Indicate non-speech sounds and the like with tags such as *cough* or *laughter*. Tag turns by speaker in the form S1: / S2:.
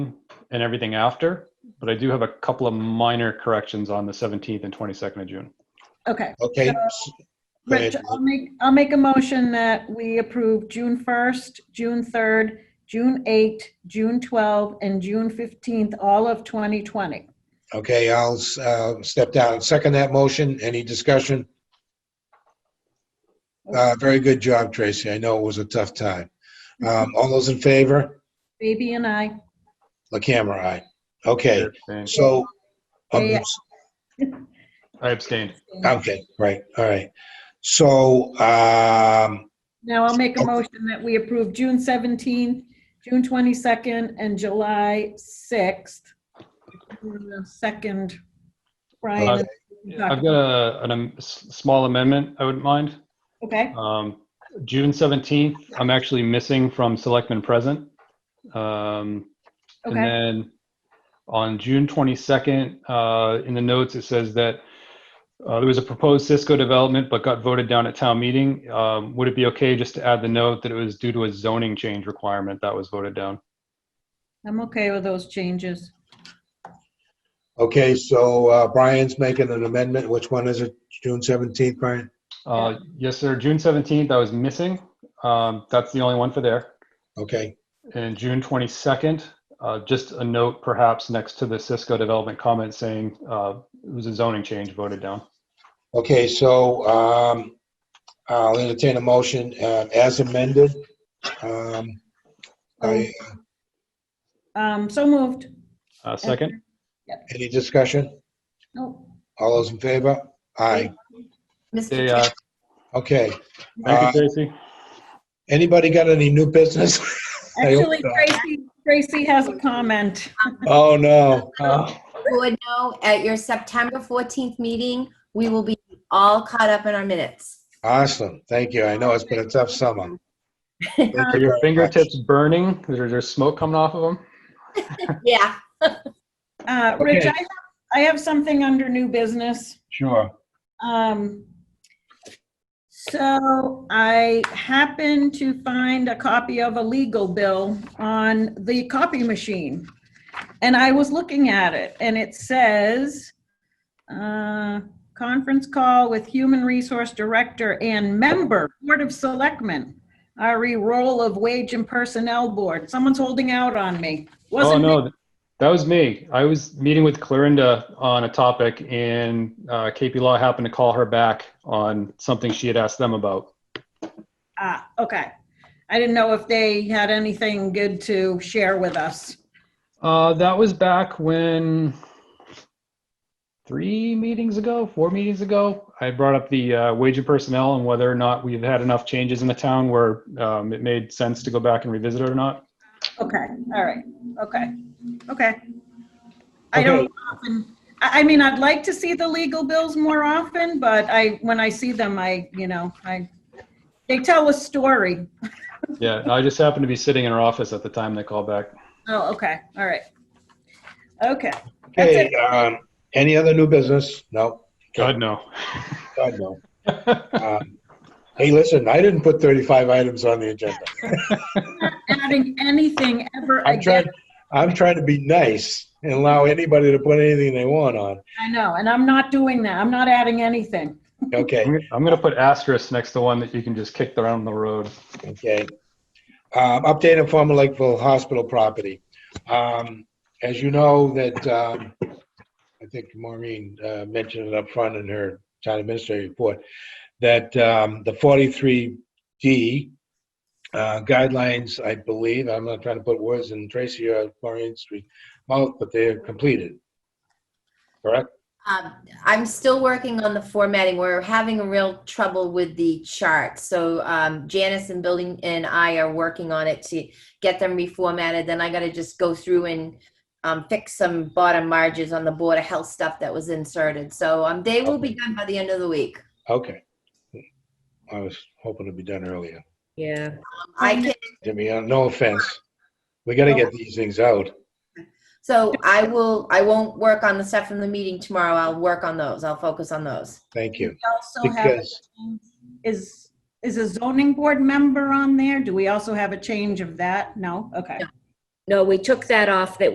S1: and everything after, but I do have a couple of minor corrections on the 17th and 22nd of June.
S2: Okay.
S3: Okay.
S2: So-
S3: s- go
S2: Rich,
S3: ahead.
S2: I'll make, I'll make a motion that we approve June 1st, June 3rd, June 8th, June 12th, and June 15th, all of 2020.
S3: Okay, I'll uh, step down. Second that motion. Any discussion? Uh, Very good job, Tracy. I know it was a tough time. Um, All those in favor?
S2: Baby and I,
S3: La camera, aye. Okay,
S1: I
S3: so, um,
S1: abstained.
S3: okay, right, all right. So, um,
S2: now I'll make a
S3: Okay.
S2: motion that we approve June 17th, June 22nd, and July 6th. Uh, Second, Brian.
S1: I've got a, an, am- s- small amendment I wouldn't mind.
S2: Okay,
S1: Um, June 17th, I'm actually missing from selectmen present. Um, And
S2: okay,
S1: then on June 22nd, uh, in the notes, it says that uh, there was a proposed Cisco development but got voted down at town meeting. Um, Would it be okay just to add the note that it was due to a zoning change requirement that was voted down?
S2: I'm okay with those changes.
S3: okay, so uh, Brian's making an amendment. Which one is it? June 17th, Brian?
S1: Uh, Yes, sir. June 17th, I was missing. Um, That's the only one for there.
S3: Okay,
S1: And June 22nd, uh, just a note perhaps next to the Cisco development comment saying uh, it was a zoning change voted down.
S3: okay, so um, I'll entertain a motion uh, as amended. Um, I-
S2: Um, so moved.
S1: Uh, Second?
S3: Any discussion?
S2: No.
S3: All those in favor? Aye.
S4: Mr.
S1: They,
S4: Chair,
S1: uh,
S3: Okay.
S1: Thank you, Tracy.
S3: Anybody got any new business? *laughs* I hope
S2: Actually,
S3: so.
S2: Tracy, Tracy has a comment.
S3: Oh, no. Uh,
S4: you would know at your September 14th meeting, we will be all caught up in our minutes.
S3: Awesome. Thank you. I know it's been a tough summer. Thank you
S1: Are your
S3: very much.
S1: fingertips burning? Is there there's smoke coming off of them?
S4: Yeah.
S2: Uh, Rich,
S3: Okay.
S2: I, have- I have something under new business.
S3: Sure.
S2: Um, so I happened to find a copy of a legal bill on the copy machine. And I was looking at it and it says, uh, conference call with Human Resource Director and member, Board of Selectmen, RE role of Wage and Personnel Board. Someone's holding out on me.
S1: oh
S2: Wasn't me.
S1: no, that was me. I was meeting with Clarinda on a topic, and uh, KP Law happened to call her back on something she had asked them about.
S2: Ah, okay. I didn't know if they had anything good to share with us.
S1: Uh, that was back when three meetings ago, four meetings ago, I brought up the uh, wage and personnel and whether or not we've had enough changes in the town where um, it made sense to go back and revisit it or not.
S2: Okay, all right, okay, okay. I
S3: Okay.
S2: don't often, I, I mean, I'd like to see the legal bills more often, but I, when I see them, I, you know, I, they tell a story.
S1: Yeah, I just happened to be sitting in her office at the time they called back.
S2: Oh, okay, all right. Okay, That's
S3: Okay, um, any other new business? No,
S1: God no.
S3: God, no. *laughs* Um, Hey, listen, I didn't put 35 items on the agenda.
S2: adding anything ever
S3: I'm trying,
S2: again,
S3: I'm trying to be nice and allow anybody to put anything they want on.
S2: I know, and I'm not doing that, I'm not adding anything.
S3: Okay.
S1: I'm I'm gonna put asterisk next to one that you can just kick around the road.
S3: Okay. Um, Update on former Lakeville Hospital property. Um, As you know, that, um, I think Maureen uh, mentioned it up front in her town administrative report, that um, the 43D uh, guidelines, I believe, I'm not trying to put words in Tracy or Maureen's mouth, but they are completed. Correct?
S4: Um, I'm still working on the formatting. We're having a real trouble with the chart. So um, Janice and Building and I are working on it to get them reformatted. Then I got to just go through and um, fix some bottom margins on the Board of Health stuff that was inserted. So um, they will be done by the end of the week.
S3: Okay. I was hoping to be done earlier.
S4: Yeah. I can
S3: Jimmy, uh, no offense. We got to get these things out.
S4: So I will, I won't work on the stuff from the meeting tomorrow. I'll work on those. I'll focus on those.
S3: Thank you.
S2: We also have,
S3: Because,
S2: is, is a zoning board member on there? Do we also have a change of that? No, okay.
S5: No, we took that off that